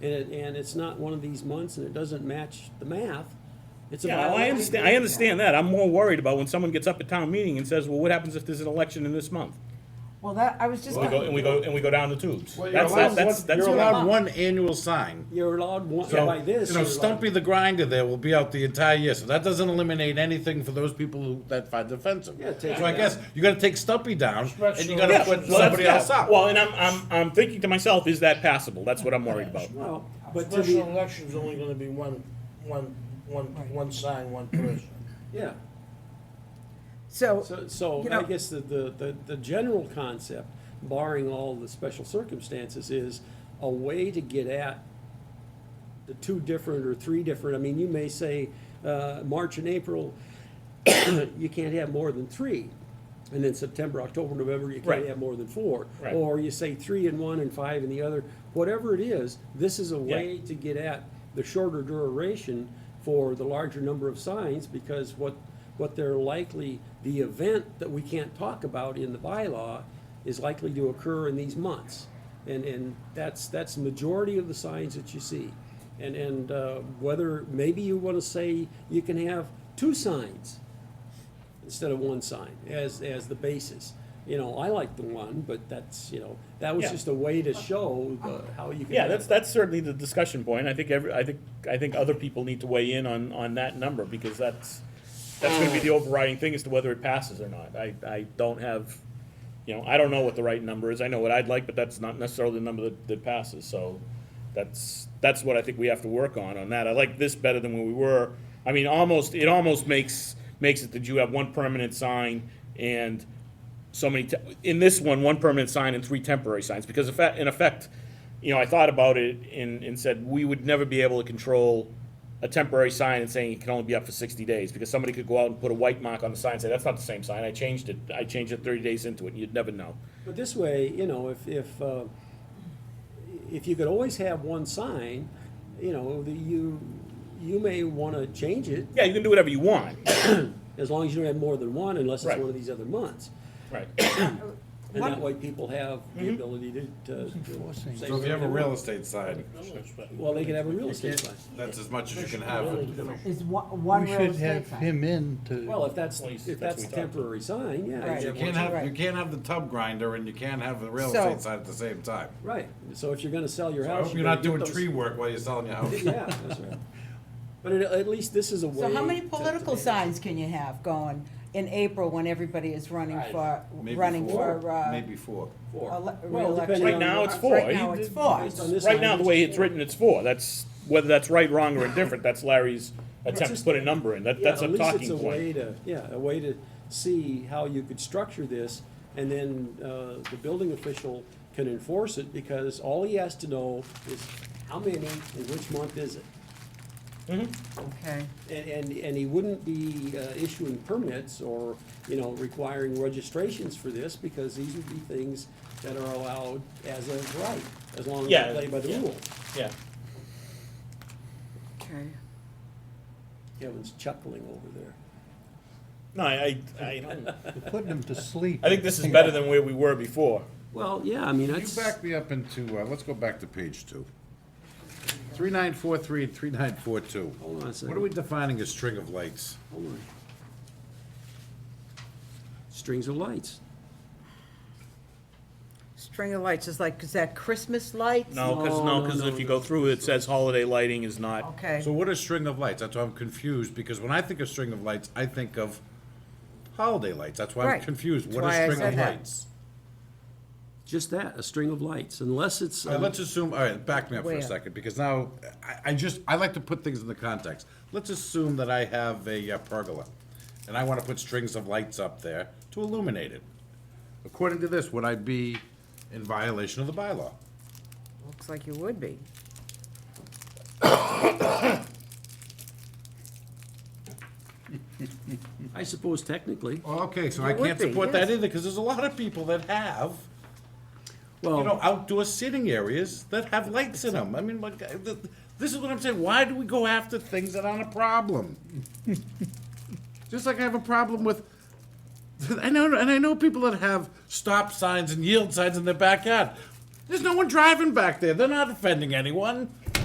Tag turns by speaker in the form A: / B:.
A: and, it- and it's not one of these months, and it doesn't match the math, it's a
B: Yeah, well, I
A: violation.
B: understand, I understand that. I'm more worried about when someone gets up at town meeting and says, well, what happens if there's an election in this month?
C: Well, that, I was just.
B: And we go, and we go, and we go down the tubes.
D: Well, you're
B: That's,
D: allowed
B: that's, that's,
D: one-
B: that's.
D: You're allowed one annual sign.
A: You're allowed one,
D: So,
A: by this.
D: you know,
A: you're allowed-
D: Stumpy the Grinder there will be out the entire year, so that doesn't eliminate anything for those people who, that find it offensive.
A: Yeah, take
D: So
A: it
D: I
A: down.
D: guess you gotta take Stumpy down, and you gotta
B: Yeah,
D: put
B: well, that's-
D: somebody
B: yeah.
D: else up.
B: Well, and I'm, I'm, I'm thinking to myself, is that passable? That's what I'm worried about.
A: Well, but to
E: Special
A: be,
E: election's only gonna be one, one, one, one sign, one person.
A: yeah.
C: So,
A: So, so
C: You
A: I
C: know-
A: guess the, the, the, the general concept, barring all the special circumstances, is a way to get at the two different or three different, I mean, you may say, uh, March and April, you can't have more than three. And then September, October, November, you can't
B: Right.
A: have more than four.
B: Right.
A: Or you say three in one and five in the other, whatever it is, this is a
B: Yeah.
A: way to get at the shorter duration for the larger number of signs, because what, what they're likely, the event that we can't talk about in the bylaw is likely to occur in these months. And, and that's, that's the majority of the signs that you see. And, and uh, whether, maybe you want to say you can have two signs instead of one sign as, as the basis. You know, I like the one, but that's, you know, that was
B: Yeah.
A: just a way to show the, how you can.
B: Yeah, that's, that's certainly the discussion point. I think every, I think, I think other people need to weigh in on, on that number, because that's, that's gonna be the overriding thing as to whether it passes or not. I, I don't have, you know, I don't know what the right number is. I know what I'd like, but that's not necessarily the number that, that passes, so that's, that's what I think we have to work on, on that. I like this better than where we were. I mean, almost, it almost makes, makes it that you have one permanent sign and so many, te- in this one, one permanent sign and three temporary signs, because in fact- in effect, you know, I thought about it and, and said, we would never be able to control a temporary sign and saying it can only be up for sixty days, because somebody could go out and put a white mark on the sign and say, that's not the same sign, I changed it, I changed it thirty days into it, and you'd never know.
A: But this way, you know, if, if, uh, if you could always have one sign, you know, the, you, you may want to change it
B: Yeah, you can do whatever you want,
A: as long as you don't have more than one unless it's
B: Right.
A: one of these other months.
B: right.
A: And that
C: One-
A: way people have the
B: Mm-hmm.
A: ability to, to. to say
D: So if you have a
A: something.
D: real estate sign,
A: Well, they could have a real estate sign.
D: that's as much as you can have.
C: is one, one
F: We
C: real
F: should
C: estate
F: have
C: sign.
F: him in to.
A: Well, if that's,
B: Place,
A: if that's
B: that's
A: a
B: what we talked
A: temporary sign, yeah.
C: Right.
A: you
D: You
A: have
D: can't have,
C: Right.
D: you can't have the tub grinder and you can't have the real
C: So-
D: estate sign at the same time.
A: Right, so if you're gonna sell your
D: So I
A: house.
D: hope you're
A: better
D: not
A: get
D: doing
A: those-
D: tree work while you're selling your house.
A: Yeah, that's right. But at, at least this is a way.
C: So how many
A: to- to
C: political
A: manage.
C: signs can you have going in April when everybody is running for,
D: Maybe
C: running
D: four,
C: for, uh,
D: maybe four.
A: Four.
C: ele-
A: Well,
C: reelection?
A: depending
B: Right
A: on
B: now,
A: what-
B: it's four.
C: Right now, it's four.
A: Based on this
B: Right now, the
A: language,
B: way it's written, it's four, that's, whether that's right, wrong, or indifferent, that's Larry's attempt to put a number in, that,
A: yeah,
B: that's a
A: at least it's
B: talking
A: a way
B: point.
A: to- Yeah, a way to see how you could structure this, and then, uh, the building official can enforce it, because all he has to know is how many and which month is it?
C: Okay.
A: And, and, and he wouldn't be uh, issuing permits or, you know, requiring registrations for this, because these would be things that are allowed as of right, as long as
B: Yeah,
A: they play by the
B: yeah.
A: rules.
B: Yeah,
C: Okay.
A: Kevin's chuckling over there.
B: no, I, I, I-
F: You're Putting him to sleep.
B: I think this is better than where we were before.
A: Well, yeah, I mean,
D: You back me up into, uh, let's go back to page two. Three nine four three and three nine four two.
A: Hold on a second.
D: What are we defining as string of lights?
A: Hold on. Strings of lights.
C: String of lights is like, is that Christmas lights?
B: No, because,
A: No,
B: no,
A: no,
B: because
A: no,
B: if you go through, it says holiday lighting is not,
C: Okay.
D: So what is string of lights? That's why I'm confused, because when I think of string of lights, I think of holiday lights. That's why I'm
C: Right.
D: confused. What
C: That's why I
D: is string of
C: said that.
D: lights?
A: Just that, a string of lights, unless it's. um,
D: All right, let's assume, all right, back me up for
C: Where?
D: a second, because now, I, I just, I like to put things in the context. Let's assume that I have a uh, pergola, and I want to put strings of lights up there to illuminate it. According to this, would I be in violation of the bylaw?
C: Looks like you would be.
A: I suppose technically.
D: Well, Okay, so I
C: It would
D: can't
C: be,
D: support that
C: yes.
D: either, because there's a lot of people that have, you know,
A: Well,
D: outdoor sitting areas that have lights in them. I mean, like, uh, th- this is what I'm saying, why do we go after things that aren't a problem? Just like I have a problem with, I know, and I know people that have stop signs and yield signs in their backyard. There's no one driving back there, they're not offending anyone.